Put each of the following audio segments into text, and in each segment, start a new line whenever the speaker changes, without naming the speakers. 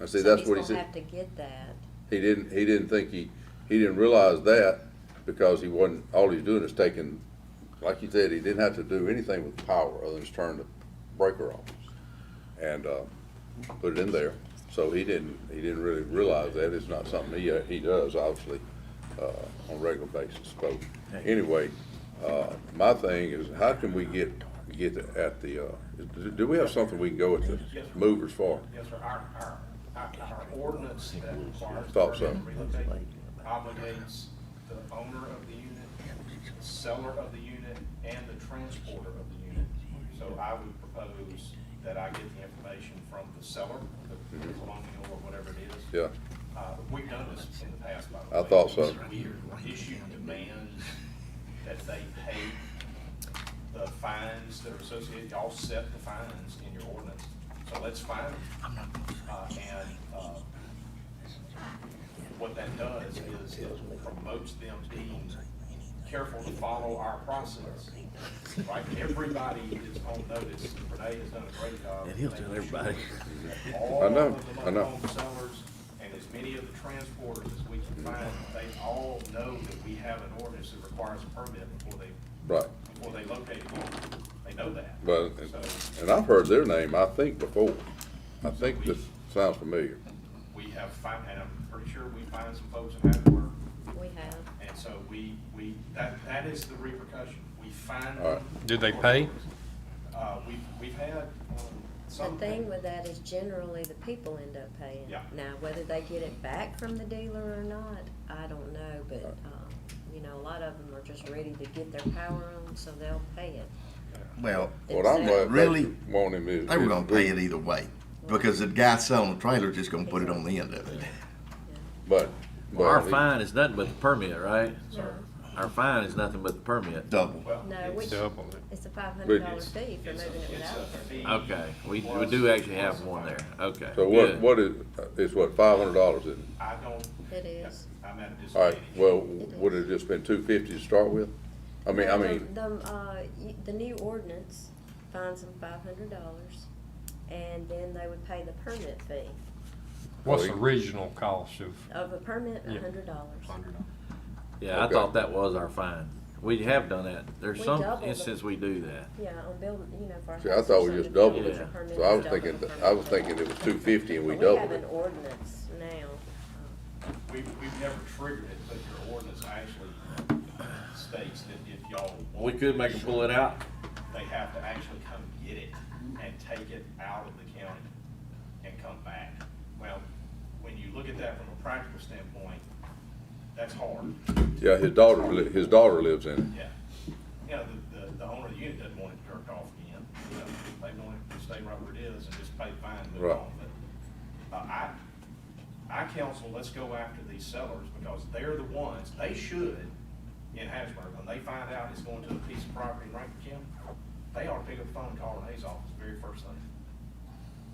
I see, that's what he
Somebody's gonna
said.
have to get that.
He didn't, he didn't think he, he didn't realize that because he wasn't, all he's doing is taking, like you said, he didn't have to do anything with power other than just turn the breaker off and, uh, put it in there. So he didn't, he didn't really realize that. It's not something he, uh, he does obviously, uh, on a regular basis. So anyway, uh, my thing is how can we get, get at the, uh, do we have something we can go at the movers for?
Yes, sir, our, our, our our ordinance that requires.
Thought so.
permanent relocation Obligates the owner of the unit, the seller of the unit, and the transporter of the unit. So I would propose that I get the information from the seller, the the colonial or whatever it is.
Yeah,
Uh, we've done this in the past, by the
I
way.
thought so.
We issue demands that they pay the fines that are associated, y'all set the fines in your ordinance, so let's fine them. Uh, and, uh, what that does is it promotes them being careful to follow our process. Right, everybody is on notice, Renee has done a great job.
And he'll tell everybody.
All
I know,
of
I
the
know.
local sellers and as many of the transporters as we can find, they all know that we have an ordinance that requires a permit before they,
right.
before they locate a unit. They know that.
Well, and-
So
and I've heard their name, I think, before. I think this sounds familiar.
we have find, and I'm pretty sure we find some folks in Havertide,
We have.
and so we, we, that, that is the repercussion. We find.
All right.
Did they pay?
Uh, we, we've had, um,
The
some.
thing with that is generally the people end up paying.
Yeah.
Now, whether they get it back from the dealer or not, I don't know, but, um, you know, a lot of them are just ready to get their power on, so they'll pay it.
Well,
What I'm glad
Really?
they want him is.
they were gonna pay it either way, because the guy selling the trailer just gonna put it on the end of it.
But. but
Our
at least-
fine is nothing but the permit, right?
Sir,
Our fine is nothing but the permit.
Double.
well.
No,
it's-
which,
Double it.
it's a five hundred dollar
it's-
fee for
it's a-
moving it
it's
without
a
a permit.
fee
Okay, we, we
plus-
do actually
plus
have
a
one
fine.
there, okay.
So what,
good.
what is, it's what, five hundred dollars is it?
I don't.
It is.
I'm at a disadvantage.
All right, well, would it have just been two fifty to start with? I mean, I
The-
mean,
The, uh, y- the new ordinance fines them five hundred dollars, and then they would pay the permit fee.
What's the regional cost of?
Of a permit, a
Yeah.
hundred dollars.
Yeah, I
Okay.
thought that was our fine. We have done that. There's
We
some
doubled it.
instances we do that.
Yeah, on building, you know, for. a
see, I
house
thought
or
we just
something,
doubled
building
it.
a permit
So I
is
was
double
thinking,
the
that- I
permit
was
fee.
thinking it was two fifty and we
But We have
doubled
an
it.
ordinance now.
We've, we've never triggered it, but your ordinance actually states that if y'all.
We
want
could make them pull it out.
They have to actually come get it and take it out of the county and come back. Well, when you look at that from a practical standpoint, that's hard,
Yeah, his daughter, li- his daughter lives in it.
yeah. You know, the, the, the owner of the unit doesn't want it jerked off again, you know, they want it to stay right where it is and just pay fine and move
Right.
on. But, uh, I, I counsel, let's go after these sellers, because they're the ones, they should, in Hattiesburg, when they find out it's going to a piece of property in Rankin County, they ought to pick up the phone and call Renee's office very first thing.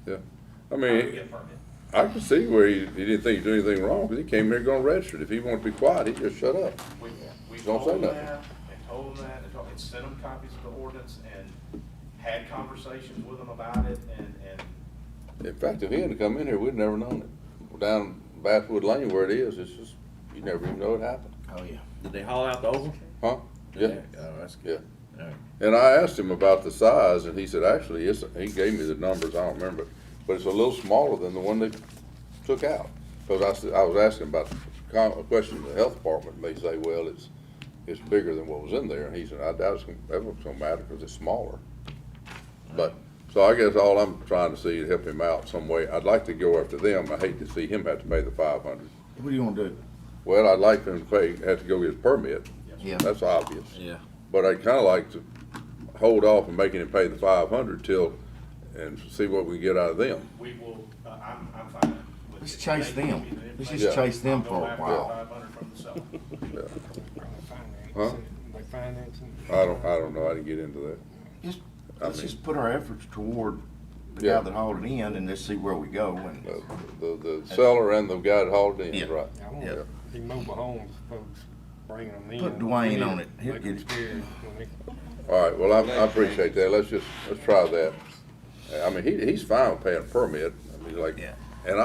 Yeah. I
I would
mean,
Get a permit.
I can see where he, he didn't think he did anything wrong, because he came here gonna register it. If he wanted to be quiet, he just shut up.
We, we
Don't
told them
say
that, and told them that, and told, and sent them copies of the ordinance, and had conversations with them about it, and, and
In fact, if he hadn't come in here, we'd never known it. Down Bathwood Lane where it is, it's just, you never even know it happened.
Oh, yeah. Did they haul out the oval?
Huh? Yeah,
Oh, that's good.
yeah.
All right.
And I asked him about the size and he said, actually, it's, he gave me the numbers, I don't remember. But it's a little smaller than the one they took out. Cause I said, I was asking about, com- a question to the health department, and they say, well, it's, it's bigger than what was in there. And he said, I doubt it's, gonna- that was gonna matter, cause it's smaller. But, so I guess all I'm trying to see is help him out some way. I'd like to go after them. I hate to see him have to pay the five hundred.
What do you wanna do?
Well, I'd like him to pay, have to go get his permit.
Yeah.
That's obvious.
Yeah,
But I'd kinda like to hold off on making him pay the five hundred till, and see what we get out of them.
we will, uh, I'm, I'm fine with it.
Let's chase
They give
them.
me the
Let's
information.
just chase
I'll
them
go
for a
after
while.
the 500 from the seller.
Huh?
Like financing.
I don't, I don't know, I didn't get into that.
Just,
I
let's
mean-
just put our efforts toward the
Yeah.
guy that hauled it in and let's see where we go and.
Uh, The, the seller and the guy that hauled
Yeah.
in, right?
I
Yeah.
want the mobile homes folks bringing them in.
Put Dwayne on it. He'll
Make them
get it.
scared when they
All right, well, I, I appreciate that, let's just, let's try that. Uh, I mean, he, he's fine with paying a permit, I mean, like,
Yeah.